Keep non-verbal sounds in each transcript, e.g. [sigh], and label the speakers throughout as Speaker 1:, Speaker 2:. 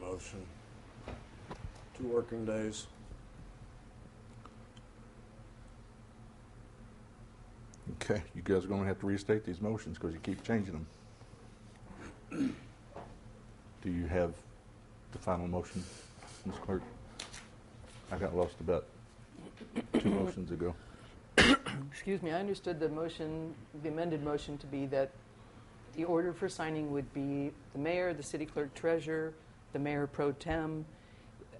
Speaker 1: motion. Two working days.
Speaker 2: Okay, you guys are gonna have to restate these motions because you keep changing them. Do you have the final motion, Ms. Clerk? I got lost about two motions ago.
Speaker 3: Excuse me, I understood the motion, the amended motion to be that the order for signing would be the mayor, the city clerk treasurer, the mayor pro tem,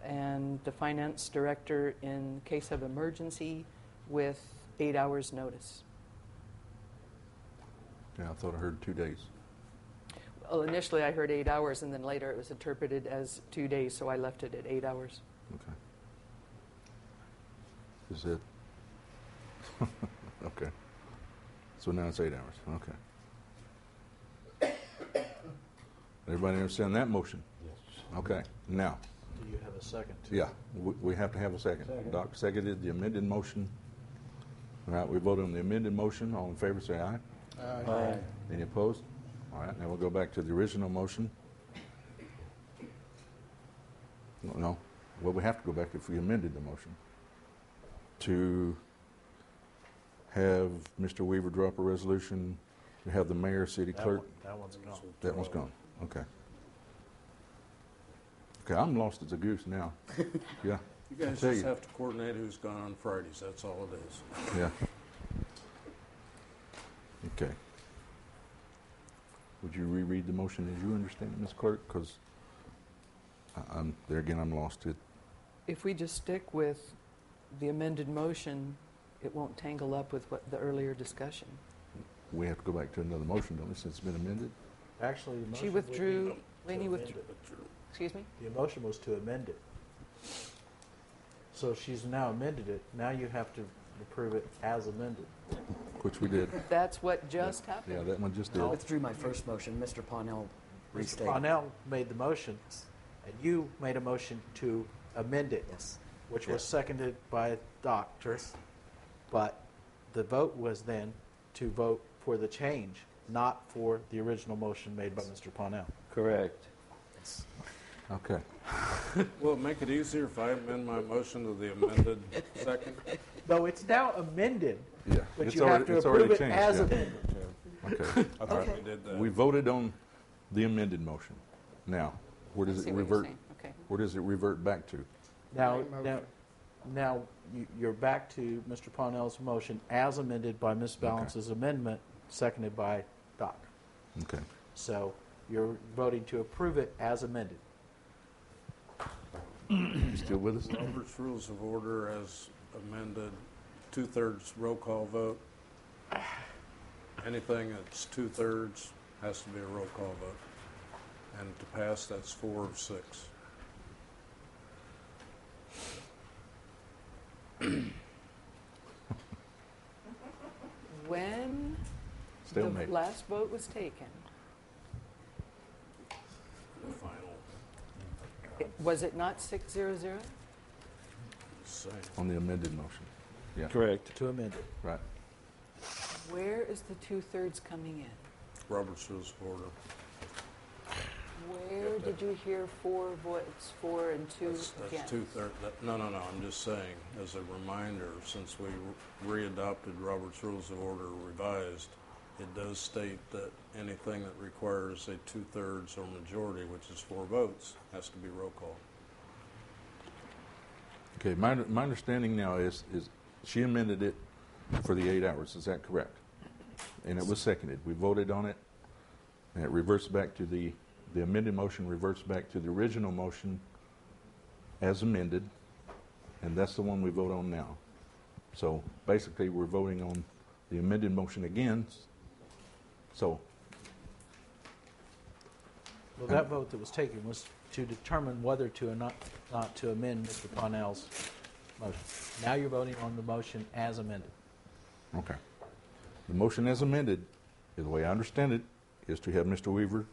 Speaker 3: and the finance director in case of emergency with eight hours' notice.
Speaker 2: Yeah, I thought I heard two days.
Speaker 3: Well, initially I heard eight hours, and then later it was interpreted as two days, so I left it at eight hours.
Speaker 2: Okay. Is it? [laughs] Okay. So now it's eight hours, okay. Everybody understand that motion?
Speaker 4: Yes.
Speaker 2: Okay, now,
Speaker 4: Do you have a second?
Speaker 2: Yeah, we, we have to have a second.
Speaker 4: Second.
Speaker 2: Doc seconded the amended motion. All right, we vote on the amended motion. All in favor, say aye.
Speaker 4: Aye.
Speaker 2: Any opposed? All right, now we'll go back to the original motion. No, No, well, we have to go back if we amended the motion to have Mr. Weaver drop a resolution, to have the mayor, city
Speaker 4: That
Speaker 2: clerk.
Speaker 4: one- That one's gone.
Speaker 2: That one's gone, okay. Okay, I'm lost as a goose now. Yeah.
Speaker 1: You guys
Speaker 2: tell
Speaker 1: just
Speaker 2: you.
Speaker 1: have to coordinate who's gone on Fridays, that's all it is.
Speaker 2: Yeah. Okay. Would you reread the motion as you understand it, Ms. Clerk? Because I'm, there again, I'm lost. It,
Speaker 3: If we just stick with the amended motion, it won't tangle up with what the earlier discussion.
Speaker 2: we have to go back to another motion, don't we, since it's been amended?
Speaker 4: Actually, the motion.
Speaker 3: She
Speaker 4: would be-
Speaker 3: withdrew,
Speaker 1: to
Speaker 3: Laney
Speaker 4: amend
Speaker 3: withdrew,
Speaker 4: it.
Speaker 3: excuse me?
Speaker 4: The motion was to amend it. So she's now amended it. Now you have to approve it as amended.
Speaker 2: Which we did.
Speaker 3: That's what just happened.
Speaker 2: Yeah, that one just
Speaker 5: I
Speaker 2: did.
Speaker 5: withdrew my first motion. Mr. Pawnell
Speaker 4: Mr.
Speaker 5: restated.
Speaker 4: Parnell made the motion, and you made a motion to amend it,
Speaker 5: Yes.
Speaker 4: which was seconded by Doctor. But the vote was then to vote for the change, not for the original motion made by Mr. Parnell.
Speaker 6: Correct.
Speaker 5: yes.
Speaker 2: Okay.
Speaker 1: Will it make it easier if I amend my motion to the amended second?
Speaker 2: [laughs]
Speaker 4: No, it's now amended,
Speaker 2: Yeah.
Speaker 4: but
Speaker 2: It's
Speaker 4: you
Speaker 2: already-
Speaker 4: have to
Speaker 2: it's already
Speaker 4: approve it
Speaker 2: changed,
Speaker 4: as
Speaker 2: yeah.
Speaker 4: amended.
Speaker 2: [laughs] Okay.
Speaker 1: I thought we did that.
Speaker 2: We voted on the amended motion. Now, where
Speaker 3: I
Speaker 2: does
Speaker 3: see
Speaker 2: it
Speaker 3: what you're
Speaker 2: revert?
Speaker 3: saying. Okay.
Speaker 2: Where does it revert back to?
Speaker 4: Now, now, now you- you're back to Mr. Parnell's motion as amended by Ms. Balance's amendment, seconded by Doc.
Speaker 2: Okay.
Speaker 4: So you're voting to approve it as amended.
Speaker 2: You still with us?
Speaker 1: Robert's Rules of Order as amended, two-thirds roll call vote. Anything that's two-thirds has to be a roll call vote. And to pass, that's four of six.
Speaker 3: When the
Speaker 2: Stalemate.
Speaker 3: last vote was taken,
Speaker 1: The final,
Speaker 3: it- was it not 600?
Speaker 1: say,
Speaker 2: On the amended motion. Yeah.
Speaker 6: Correct.
Speaker 4: To amend it.
Speaker 2: Right.
Speaker 3: Where is the two-thirds coming in?
Speaker 1: Robert's Rules of Order.
Speaker 3: Where did you hear four votes, four and two
Speaker 1: That's, that's
Speaker 3: against?
Speaker 1: two-thirds, no, no, no, I'm just saying, as a reminder, since we re-adopted Robert's Rules of Order revised, it does state that anything that requires a two-thirds or majority, which is four votes, has to be roll call.
Speaker 2: Okay, my, my understanding now is, is she amended it for the eight hours, is that correct? And it was seconded, we voted on it, and it reverts back to the, the amended motion reverts back to the original motion as amended, and that's the one we vote on now. So basically, we're voting on the amended motion again, so,
Speaker 4: Well, that vote that was taken was to determine whether to or not, not to amend Mr. Parnell's motion. Now you're voting on the motion as amended.
Speaker 2: okay. The motion as amended, the way I understand it, is to have Mr. Weaver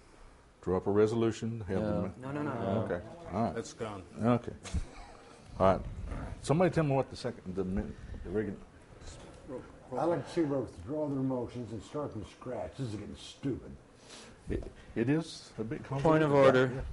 Speaker 2: draw up a resolution, have the.
Speaker 6: No.
Speaker 2: ma-
Speaker 5: No, no, no, no. no.
Speaker 2: Okay, all right.
Speaker 1: That's gone.
Speaker 2: Okay. All right. Somebody tell me what the second, the min, the regular,
Speaker 7: I like to see where withdraw their motions and start from scratch. This is getting stupid.
Speaker 2: it, it is a bit complicated.
Speaker 6: Point of order.